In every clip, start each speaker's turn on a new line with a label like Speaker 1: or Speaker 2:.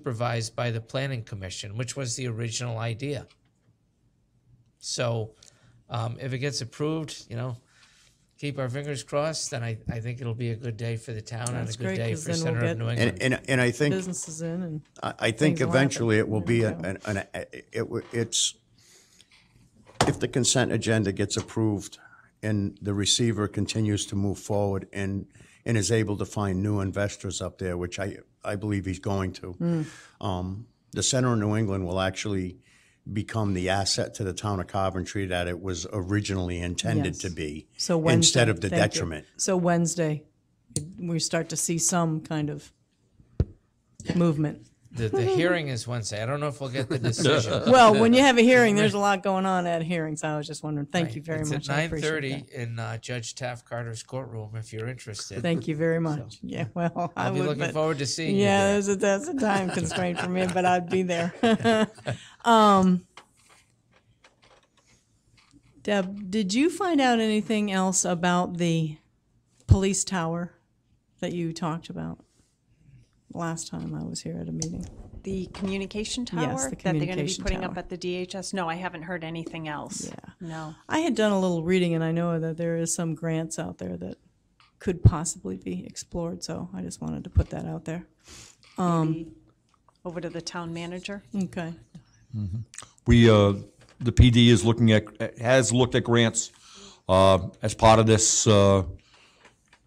Speaker 1: supervised by the planning commission, which was the original idea. So um, if it gets approved, you know, keep our fingers crossed, then I, I think it'll be a good day for the town and
Speaker 2: That's
Speaker 1: a good
Speaker 2: great,
Speaker 1: day
Speaker 2: 'cause
Speaker 1: for
Speaker 2: then we'll
Speaker 1: Center of
Speaker 2: get-
Speaker 1: New England.
Speaker 3: And, and, and I think
Speaker 2: businesses in and
Speaker 3: I I think
Speaker 2: Things will happen.
Speaker 3: eventually it will be,
Speaker 2: Yeah.
Speaker 3: an, an, an- it, w- it's, if the consent agenda gets approved and the receiver continues to move forward and, and is able to find new investors up there, which I, I believe he's going
Speaker 2: Hmm.
Speaker 3: to, um, the center of New England will actually become the asset to the town of Coventry that it was originally intended to
Speaker 2: Yes.
Speaker 3: be.
Speaker 2: so Wednesday.
Speaker 3: Instead of the
Speaker 2: thank you.
Speaker 3: detriment.
Speaker 2: So Wednesday, we start to see some kind of movement.
Speaker 1: The, the hearing is Wednesday. I don't know if we'll get the decision.
Speaker 2: Well, when you have a hearing, there's a lot going on at hearings. I was just wondering. Thank you very
Speaker 1: It's
Speaker 2: much.
Speaker 1: at
Speaker 2: I
Speaker 1: nine
Speaker 2: appreciate
Speaker 1: thirty
Speaker 2: that.
Speaker 1: in uh, Judge Taft Carter's courtroom, if you're interested.
Speaker 2: Thank you very much. Yeah, well, I
Speaker 1: I'll be
Speaker 2: would,
Speaker 1: looking
Speaker 2: but-
Speaker 1: forward to seeing you
Speaker 2: Yeah,
Speaker 1: there.
Speaker 2: there's a, that's a time constraint for me, but I'd be there. um, Deb, did you find out anything else about the police tower that you talked about last time I was here at a meeting?
Speaker 4: The communication tower
Speaker 2: Yes, the
Speaker 4: that they're going to
Speaker 2: communication
Speaker 4: be putting
Speaker 2: tower.
Speaker 4: up at the DHS? No, I haven't heard anything else. Yeah. No.
Speaker 2: I had done a little reading, and I know that there is some grants out there that could possibly be explored. So I just wanted to put that out there.
Speaker 4: Over to the town manager?
Speaker 2: Okay.
Speaker 5: We, uh, the PD is looking at, has looked at grants, uh, as part of this, uh,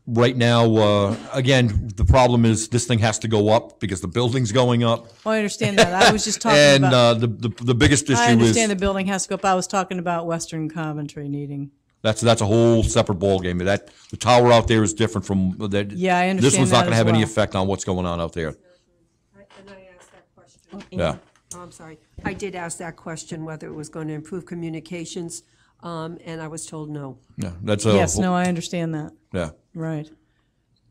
Speaker 5: right now, uh, again, the problem is this thing has to go up because the building's going up.
Speaker 2: Well, Oh, I understand that. I was just talking
Speaker 5: And,
Speaker 2: about.
Speaker 5: uh, the, the, the biggest
Speaker 2: I
Speaker 5: issue
Speaker 2: understand the
Speaker 5: is,
Speaker 2: building has to go up. I was talking about Western Coventry needing.
Speaker 5: that's, that's a whole separate ballgame. That, the tower out there is different from, that.
Speaker 2: Yeah, I
Speaker 5: This
Speaker 2: understand
Speaker 5: one's
Speaker 2: that
Speaker 5: not gonna
Speaker 2: as
Speaker 5: have any
Speaker 2: well.
Speaker 5: effect on what's going on out there.
Speaker 6: I- And I asked that question.
Speaker 5: Yeah.
Speaker 6: Oh, I'm sorry. I did ask that question, whether it was going to improve communications, um, and I was told no.
Speaker 5: Yeah, that's a.
Speaker 2: Yes, no, I understand that.
Speaker 5: Yeah,
Speaker 2: Right.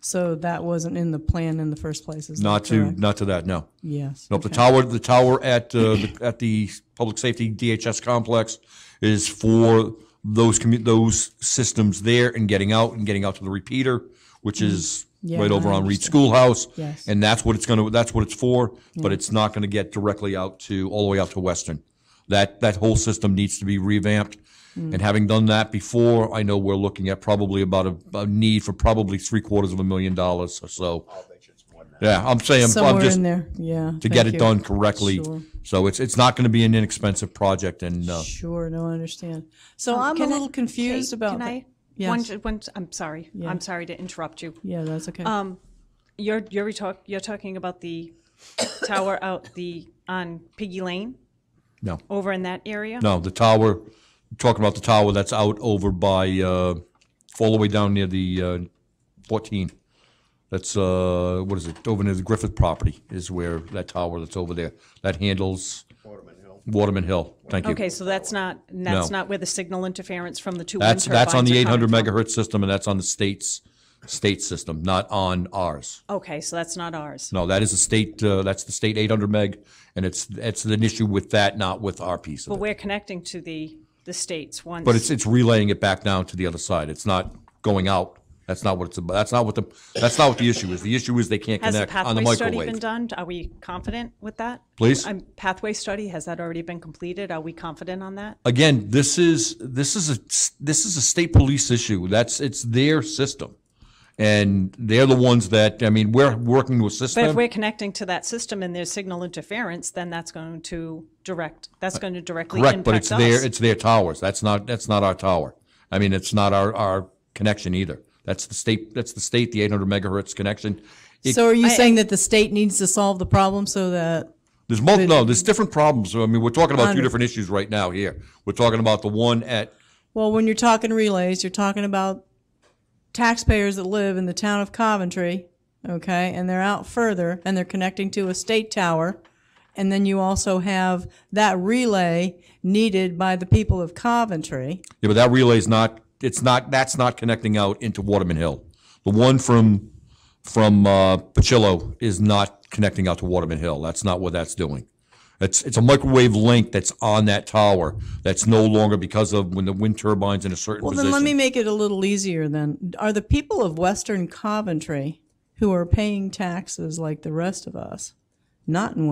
Speaker 2: So that wasn't in the plan in the first place, is that
Speaker 5: not to,
Speaker 2: correct?
Speaker 5: not to that, no.
Speaker 2: Yes.
Speaker 5: Nope, the
Speaker 2: okay.
Speaker 5: tower, the tower at, uh, the- at the Public Safety DHS complex is for those commu, those systems there and getting out and getting out to the repeater, which is
Speaker 2: Mm-hmm. Yeah,
Speaker 5: right over
Speaker 2: I
Speaker 5: on Reed
Speaker 2: understand.
Speaker 5: Schoolhouse.
Speaker 2: Yes.
Speaker 5: And that's what it's gonna, that's what it's for, but it's not gonna get directly out to, all the way out to Western. That, that whole system needs to be revamped.
Speaker 2: Mm.
Speaker 5: And having done that before, I know we're looking at probably about a, a need for probably three quarters of a million dollars or so. Yeah, I'm saying, I'm
Speaker 2: Somewhere
Speaker 5: just,
Speaker 2: in there, yeah.
Speaker 5: to get it done correctly. So it's, it's not going to be an inexpensive project and, uh,
Speaker 2: Sure, no, I understand. So I'm a
Speaker 4: Um, Can I-
Speaker 2: little confused
Speaker 4: Kate,
Speaker 2: about
Speaker 4: Can I?
Speaker 2: that.
Speaker 4: One,
Speaker 2: Yes,
Speaker 4: ju- one, I'm sorry.
Speaker 2: Yeah.
Speaker 4: I'm sorry to interrupt you.
Speaker 2: yeah, that's okay.
Speaker 4: Um, You're, you're talk, you're talking about the tower out the, on Piggy Lane
Speaker 5: no,
Speaker 4: over in that area?
Speaker 5: no, the tower, talking about the tower that's out over by, uh, all the way down near the, uh, fourteen. That's, uh, what is it? Over near the Griffith property is where that tower that's over there, that handles. Waterman Hill. Waterman Hill, thank you.
Speaker 4: Okay, so that's not, that's
Speaker 5: No.
Speaker 4: not where the signal interference from the two wind
Speaker 5: That's, that's on
Speaker 4: turbines
Speaker 5: the
Speaker 4: are
Speaker 5: eight
Speaker 4: coming
Speaker 5: hundred
Speaker 4: from.
Speaker 5: megahertz system and that's on the state's, state system, not on ours.
Speaker 4: Okay, so that's not ours.
Speaker 5: No, that is a state, uh, that's the state 800 meg, and it's, it's an issue with that, not with our piece
Speaker 4: But
Speaker 5: of it.
Speaker 4: we're connecting to the, the states once.
Speaker 5: But it's, it's relaying it back down to the other side. It's not going out. That's not what it's about. That's not what the, that's not what the issue is. The issue is they can't
Speaker 4: Has the
Speaker 5: connect on the
Speaker 4: pathway study been
Speaker 5: microwave.
Speaker 4: done? Are we confident with that?
Speaker 5: Please?
Speaker 4: Um, Pathway study, has that already been completed? Are we confident on that?
Speaker 5: Again, this is, this is a, s- this is a state police issue. That's, it's their system. And they're the ones that, I mean, we're working to assist
Speaker 4: But if
Speaker 5: them.
Speaker 4: we're connecting to that system and there's signal interference, then that's going to direct, that's going to directly impact
Speaker 5: Uh, Correct,
Speaker 4: us.
Speaker 5: but it's their, it's their towers. That's not, that's not our tower. I mean, it's not our, our connection either. That's the state, that's the state, the 800 megahertz connection. It-
Speaker 2: So are you saying that the state needs to solve the problem so that,
Speaker 5: There's mul, no, there's different problems. I mean, we're talking about two different issues right now here. We're talking about the one at,
Speaker 2: well, when you're talking relays, you're talking about taxpayers that live in the town of Coventry, okay, and they're out further and they're connecting to a state tower. And then you also have that relay needed by the people of Coventry.
Speaker 5: yeah, but that relay's not, it's not, that's not connecting out into Waterman Hill. The one from, from, uh, Pacillo is not connecting out to Waterman Hill. That's not what that's doing. It's, it's a microwave link that's on that tower that's no longer because of when the wind turbine's in a certain
Speaker 2: Well, then let me
Speaker 5: position.
Speaker 2: make it a little easier then. Are the people of Western Coventry who are paying taxes like the rest of us, not in